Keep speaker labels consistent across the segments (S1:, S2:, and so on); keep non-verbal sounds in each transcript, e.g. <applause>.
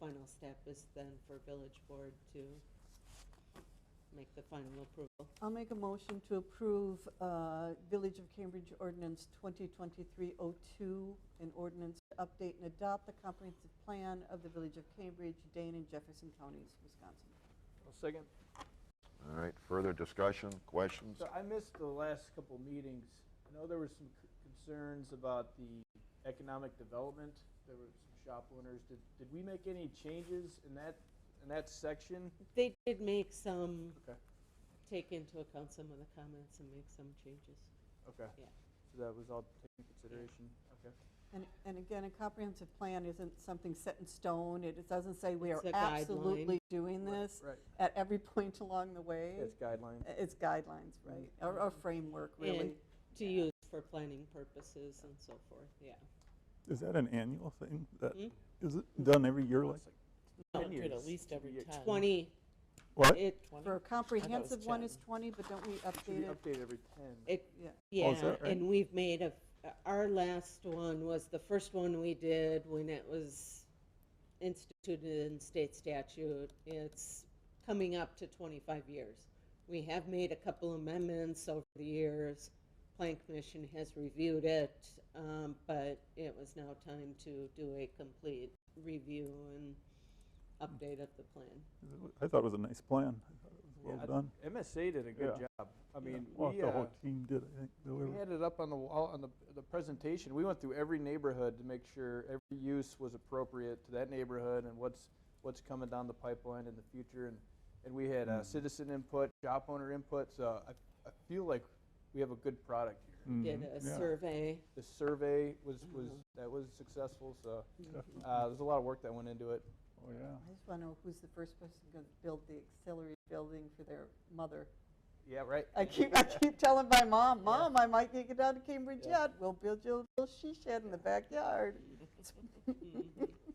S1: final step is then for village board to make the final approval.
S2: I'll make a motion to approve uh, Village of Cambridge Ordinance 2023-02, an ordinance to update and adopt the comprehensive plan of the Village of Cambridge, Dane, and Jefferson Counties, Wisconsin.
S3: I'll second.
S4: All right, further discussion, questions?
S3: So I missed the last couple meetings. I know there were some c- concerns about the economic development. There were some shop owners. Did, did we make any changes in that, in that section?
S1: They did make some,
S3: Okay,
S1: take into account some of the comments and make some changes.
S3: okay.
S1: Yeah.
S3: So that was all taken into consideration? Okay.
S2: And, and again, a comprehensive plan isn't something set in stone. It it doesn't say we are
S1: It's a guideline.
S2: absolutely doing this
S3: Right.
S2: at every point along the way.
S3: That's guidelines.
S2: It's guidelines, right, or or framework,
S1: And
S2: really.
S1: to use for planning purposes and so forth, yeah.
S5: Is that an annual thing? That
S1: Hmm?
S5: is it done every year like,
S3: It's like
S6: No,
S3: 10
S6: do it
S3: years.
S6: at least every
S3: Yeah,
S6: ten.
S1: Twenty,
S5: what?
S1: it,
S2: For a comprehensive one
S6: 10.
S2: is 20, but don't we
S3: Should be
S2: update it?
S3: updated every ten.
S1: it,
S2: Yeah.
S5: Oh,
S1: yeah,
S5: is that right?
S1: and we've made a, our last one was the first one we did when it was instituted in state statute. It's coming up to twenty-five years. We have made a couple amendments over the years. Plan Commission has reviewed it, um, but it was now time to do a complete review and update of the plan.
S5: I thought it was a nice plan. I thought it was
S3: Yeah, I-
S5: well done.
S3: MSA did a good
S5: Yeah.
S3: job. I mean,
S5: Well,
S3: we,
S5: the
S3: uh,
S5: whole team did, I think.
S3: We
S5: whoever-
S3: had it up on the wall, on the, the presentation. We went through every neighborhood to make sure every use was appropriate to that neighborhood and what's, what's coming down the pipeline in the future. And, and we had
S2: Mm-hmm.
S3: uh, citizen input, shop owner input, so I, I feel like we have a good product here.
S1: Did
S5: Mhm,
S1: a
S5: yeah.
S1: survey.
S3: The survey was, was,
S2: Mm-hmm.
S3: that was successful, so, uh, there's a lot of work that went into it.
S5: Oh, yeah.
S2: I just want to know who's the first person going to build the auxiliary building for their mother.
S3: Yeah, right?
S2: I keep, I keep telling my mom,
S3: Yeah.
S2: Mom, I might get down to Cambridge
S3: Yeah.
S2: yet. We'll build you a little she shed in the
S3: <laughs>
S2: backyard. <laughs>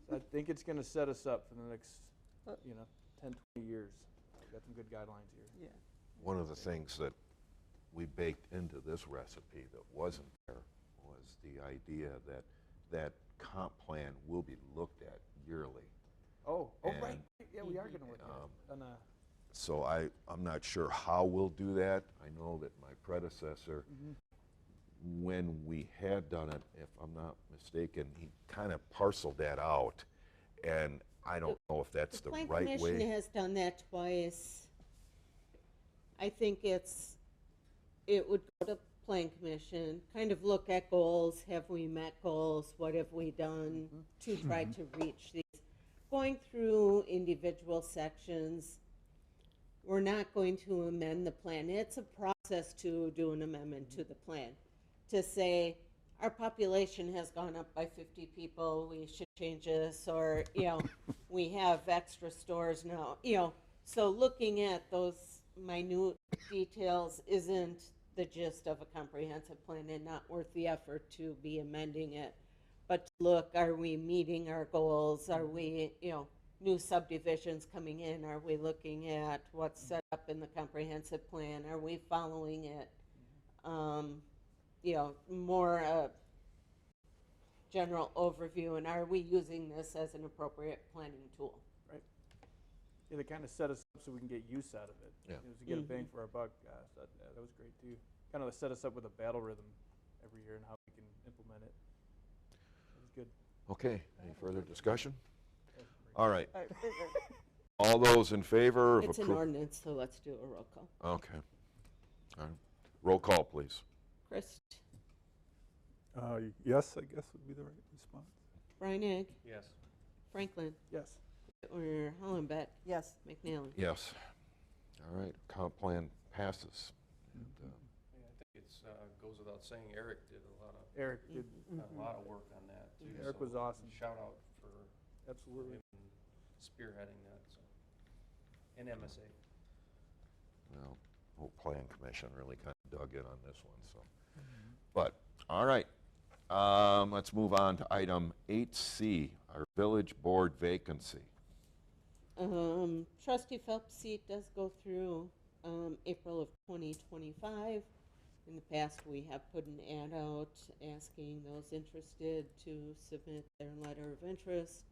S3: So I think it's gonna set us up for the next,
S2: Uh.
S3: you know, ten, twenty years. We've Got some good guidelines here.
S2: Yeah.
S4: One of the things that we baked into this recipe that wasn't there was the idea that that comp plan will be looked at yearly.
S3: Oh, oh, right,
S4: And-
S3: yeah, we are gonna look
S4: Um,
S3: at it uh, on a.
S4: So I, I'm not sure how we'll do that. I know that my predecessor, when we had done it, if I'm not mistaken, he kind of parceled that out. And I don't know if that's the
S1: Plan
S4: right
S1: Commission
S4: way.
S1: has done that twice. I think it's, it would go to Plan Commission, kind of look at goals, have we met goals, what have we done to try
S4: Mm-hmm.
S1: to reach these? Going through individual sections, we're not going to amend the plan. It's a process to do an amendment to the plan. To say, our population has gone up by fifty people, we should change this, or, you know, we have extra stores now, you know. So looking at those minute details isn't the gist of a comprehensive plan and not worth the effort to be amending it. But to look, are we meeting our goals? Are we, you know, new subdivisions coming in? Are we looking at what's set up in the comprehensive plan? Are we following it? Um, you know, more uh, general overview, and are we using this as an appropriate planning tool?
S3: Yeah, they kind of set us up so we can get use out of it.
S4: Yeah.
S3: You know, to get a bang for our buck. Uh, so that, uh, that was great too. Kind of set us up with a battle rhythm every year and how we can implement it. That was good.
S4: Okay, any further discussion? All right,
S2: All right, wait, wait.
S4: all those in favor of
S1: It's an
S4: approval?
S1: ordinance, so let's do a roll call.
S4: Okay. All right. Roll call, please.
S1: Chris,
S5: Uh, yes, I guess would be the right response.
S1: Reinig,
S3: Yes.
S1: Franklin,
S3: Yes.
S1: or Hollenbeck,
S2: Yes,
S1: McNally.
S4: Yes. All right, comp plan passes. And, uh,
S7: Yeah, I think it's, uh, goes without saying, Eric did a lot of,
S3: Eric did
S7: a lot of work on that too.
S3: Mm-hmm. Eric
S7: so
S3: was awesome.
S7: Shout out for
S3: absolutely.
S7: him spearheading that, so. And MSA.
S4: Well, whole plan commission really kind of dug in on this one, so. But, all right, um, let's move on to item eight C, our village board vacancy.
S1: Um, trustee Phelps' seat does go through, um, April of twenty twenty-five. In the past, we have put an ad out asking those interested to submit their letter of interest.